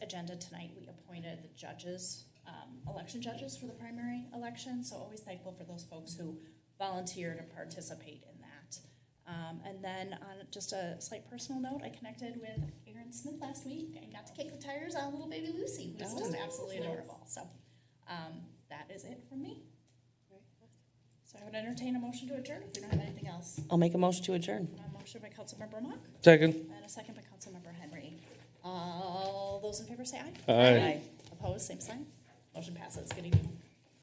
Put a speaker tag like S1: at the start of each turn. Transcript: S1: agenda tonight, we appointed the judges, um, election judges for the primary election, so always thankful for those folks who volunteered and participate in that. Um, and then on just a slight personal note, I connected with Aaron Smith last week and got to kick the tires on little baby Lucy, who's just absolutely adorable. So um, that is it from me. So I would entertain a motion to adjourn if we don't have anything else.
S2: I'll make a motion to adjourn.
S1: A motion by Councilmember Mock
S3: Second.
S1: and a second by Councilmember Henry. All those in favor say aye.
S3: Aye.
S1: Opposed, same sign. Motion passes. Good evening.